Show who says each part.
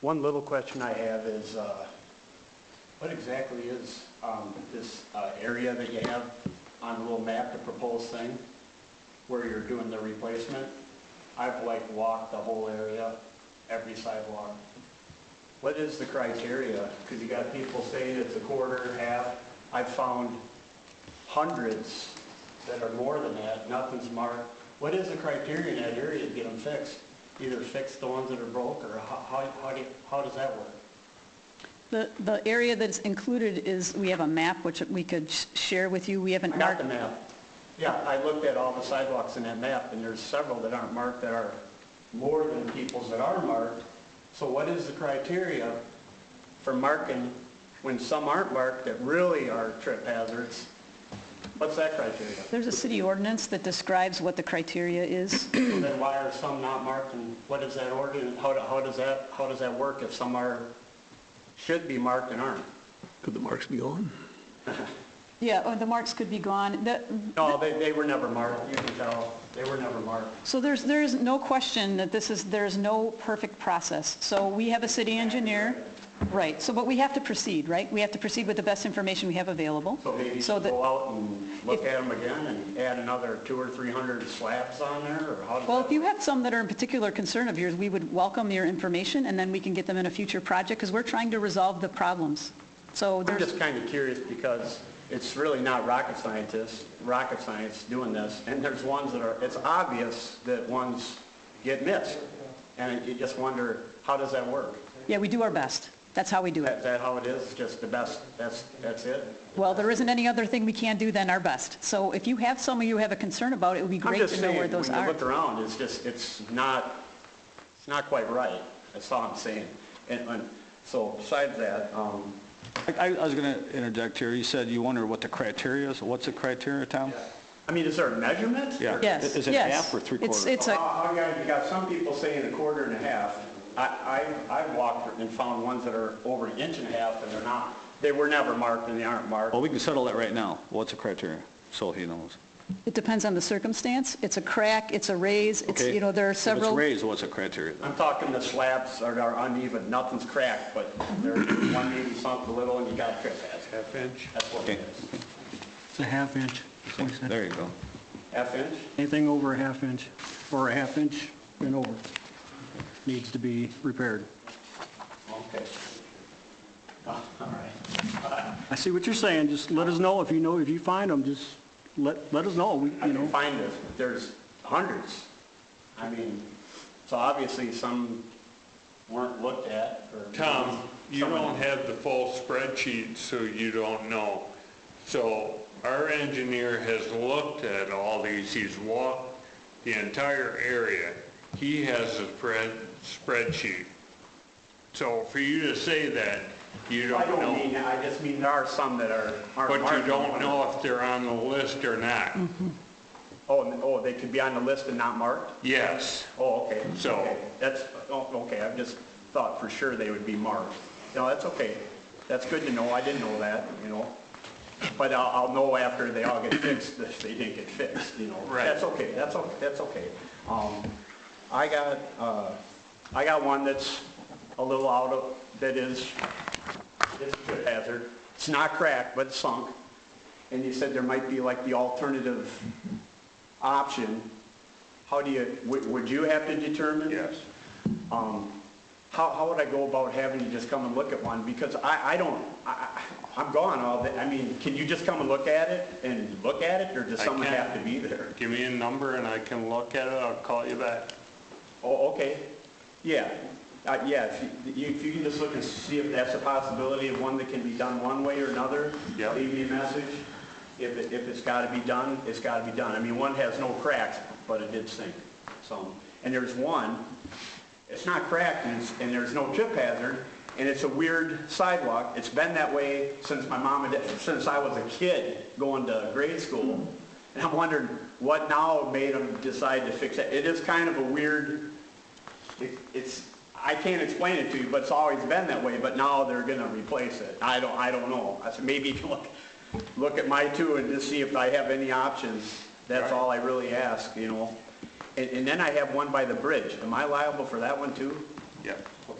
Speaker 1: One little question I have is, uh, what exactly is um, this uh, area that you have on the little map, the proposed thing, where you're doing the replacement? I've like walked the whole area, every sidewalk. What is the criteria? Because you got people saying it's a quarter, half. I've found hundreds that are more than that, nothing's marked. What is the criteria in that area to get them fixed? Either fix the ones that are broke, or how, how, how do, you- how does that work?
Speaker 2: The, the area that's included is, we have a map which we could sh- share with you. We haven't
Speaker 1: I got
Speaker 2: marked.
Speaker 1: the map. Yeah, I looked at all the sidewalks in that map, and there's several that aren't marked that are more than people's that are marked. So what is the criteria for marking when some aren't marked that really are trip hazards? What's that criteria?
Speaker 2: There's a city ordinance that describes what the criteria is.
Speaker 1: Then why are some not marked, and what is that ordinance, how, do- how does that, how does that work if some are, should be marked and aren't?
Speaker 3: Could the marks be gone?
Speaker 2: Yeah, oh, the marks could be gone. The-
Speaker 1: No, they, they were never marked, you can tell, they were never marked.
Speaker 2: So there's, there's no question that this is, there's no perfect process. So we have a city engineer, right, so, but we have to proceed, right? We have to proceed with the best information we have available.
Speaker 1: So maybe you
Speaker 2: So
Speaker 1: should
Speaker 2: that-
Speaker 1: go out and look at them again and add another two or three hundred slabs on there, or how does
Speaker 2: Well, if
Speaker 1: that?
Speaker 2: you have some that are in particular concern of yours, we would welcome your information, and then we can get them in a future project, because we're trying to resolve the problems. So
Speaker 1: I'm
Speaker 2: there's,
Speaker 1: just kind of curious because it's really not rocket scientists, rocket science doing this, and there's ones that are, it's obvious that ones get missed. And you just wonder, how does that work?
Speaker 2: yeah, we do our best. That's how we do
Speaker 1: Is
Speaker 2: it.
Speaker 1: that how it is, just the best, that's, that's it?
Speaker 2: Well, there isn't any other thing we can do than our best. So if you have some of you have a concern about, it would be
Speaker 1: I'm
Speaker 2: great
Speaker 1: just
Speaker 2: to know
Speaker 1: saying,
Speaker 2: where
Speaker 1: when you
Speaker 2: those are.
Speaker 1: look around, it's just, it's not, it's not quite right. That's all I'm saying. And, and, so besides that, um,
Speaker 4: I, I was going to interject here. You said you wonder what the criteria is. What's the criteria, Tom?
Speaker 1: I mean, is there a measurement?
Speaker 4: Yeah.
Speaker 2: Yes,
Speaker 4: Is it
Speaker 2: yes.
Speaker 4: half or three
Speaker 2: It's-
Speaker 4: quarters?
Speaker 2: It's
Speaker 1: Well,
Speaker 2: a,
Speaker 1: I- I got- You got some people saying a quarter and a half. I, I, I've walked and found ones that are over an inch and a half and they're not, they were never marked and they aren't marked.
Speaker 4: Well, we can settle that right now. What's the criteria? So he knows.
Speaker 2: it depends on the circumstance. It's a crack, it's a raise, it's,
Speaker 4: Okay?
Speaker 2: you know, there are
Speaker 4: If
Speaker 2: several.
Speaker 4: it's raised, what's the criteria? then?
Speaker 1: I'm talking the slabs are are uneven, nothing's cracked, but there's one maybe something little and you got trip hazard.
Speaker 5: Half inch.
Speaker 1: That's what it
Speaker 4: Okay.
Speaker 1: is.
Speaker 5: It's a half inch. That's what I said.
Speaker 4: There you go.
Speaker 1: Half inch?
Speaker 5: Anything over a half inch, or a half inch and over, needs to be repaired.
Speaker 1: Okay. Oh, All right.
Speaker 5: I see what you're saying, just let us know if you know, if you find them, just let, let us know, We-
Speaker 1: I can
Speaker 5: you know.
Speaker 1: find this, but there's hundreds. I mean, so obviously some weren't looked at or.
Speaker 6: Tom, you
Speaker 1: Someone-
Speaker 6: don't have the full spreadsheet, so you don't know. So our engineer has looked at all these, he's walked the entire area. He has a spread, spreadsheet. So for you to say that, you
Speaker 1: I
Speaker 6: don't
Speaker 1: don't
Speaker 6: know.
Speaker 1: mean, that. I just mean there are some that are, aren't
Speaker 6: But you
Speaker 1: marked.
Speaker 6: don't know if they're on the list or not.
Speaker 1: Oh, and- oh, they could be on the list and not marked?
Speaker 6: Yes.
Speaker 1: Oh, okay.
Speaker 6: So-
Speaker 1: Okay. That's, oh, okay, I've just thought for sure they would be marked. No, that's okay. That's good to know, I didn't know that, you know? But I'll, I'll know after they all get fixed, if they didn't get fixed, you know?
Speaker 6: Right.
Speaker 1: That's okay, that's, o- that's okay. Um, I got, uh, I got one that's a little out of, that is, it's a trip hazard. It's not cracked, but it's sunk. And you said there might be like the alternative option. How do you, would, would you have to determine? Um, How, how would I go about having you just come and look at one? Because I, I don't, I, I- I'm gone all day. I mean, can you just come and look at it and look at it, or does
Speaker 6: I
Speaker 1: someone
Speaker 6: can.
Speaker 1: have to be there?
Speaker 6: Give me a number and I can look at it, I'll call you back.
Speaker 1: Oh, okay. Yeah, uh, yeah, if you, if you can just look and see if that's a possibility of one that can be done one way or another.
Speaker 6: Yep.
Speaker 1: Leave me a message. If, it- if it's gotta be done, it's gotta be done. I mean, one has no cracks, but it did sink, so. And there's one, it's not cracked and it's, and there's no trip hazard, and it's a weird sidewalk. It's been that way since my mom and dad, since I was a kid going to grade school. And I'm wondering what now made them decide to fix it. It is kind of a weird it- it's, I can't explain it to you, but it's always been that way, but now they're gonna replace it. I don't, I don't know. I said, maybe you can look, look at my two and just see if I have any options. That's all I really ask, you know? And, and then I have one by the bridge. Am I liable for that one too?
Speaker 6: Yep.